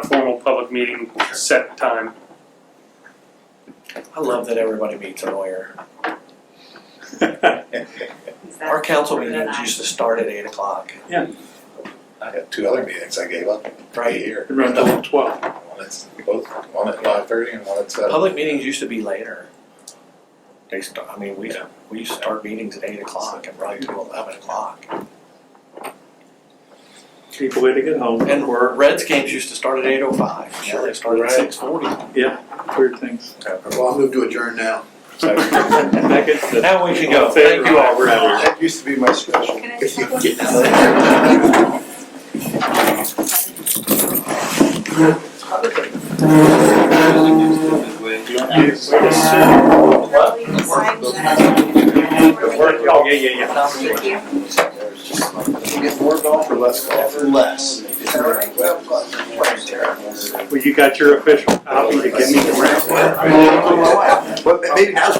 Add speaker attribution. Speaker 1: a formal public meeting set time.
Speaker 2: I love that everybody meets a lawyer.
Speaker 3: Is that
Speaker 2: Our council
Speaker 3: better than
Speaker 2: meetings
Speaker 3: I?
Speaker 2: used to start at eight o'clock,
Speaker 4: I had two other meetings I gave up right
Speaker 2: right?
Speaker 4: here.
Speaker 5: Around twelve.
Speaker 4: One at, both, one at five thirty and one at seven.
Speaker 2: Public meetings used to be later. They start, I mean, we, we used to start meetings at eight o'clock and run to eleven o'clock.
Speaker 5: People way to get home
Speaker 2: And
Speaker 5: and work,
Speaker 2: Reds games used to start at eight oh five, now they start at
Speaker 4: Right.
Speaker 2: six forty.
Speaker 5: weird things.
Speaker 6: Well, I'll move to adjourn now.
Speaker 5: Second.
Speaker 2: Now we can go,
Speaker 5: All in favor?
Speaker 2: thank you all, we're out.
Speaker 6: That used to be my special.
Speaker 3: Can I just have one?
Speaker 6: Get out
Speaker 5: Yes.
Speaker 3: Really decide that.
Speaker 5: Oh, yeah, yeah, yeah.
Speaker 3: Thank you.
Speaker 6: You get more golf or less golf?
Speaker 2: Less.
Speaker 5: Well, you got your official copy to give me.
Speaker 6: Well, maybe that's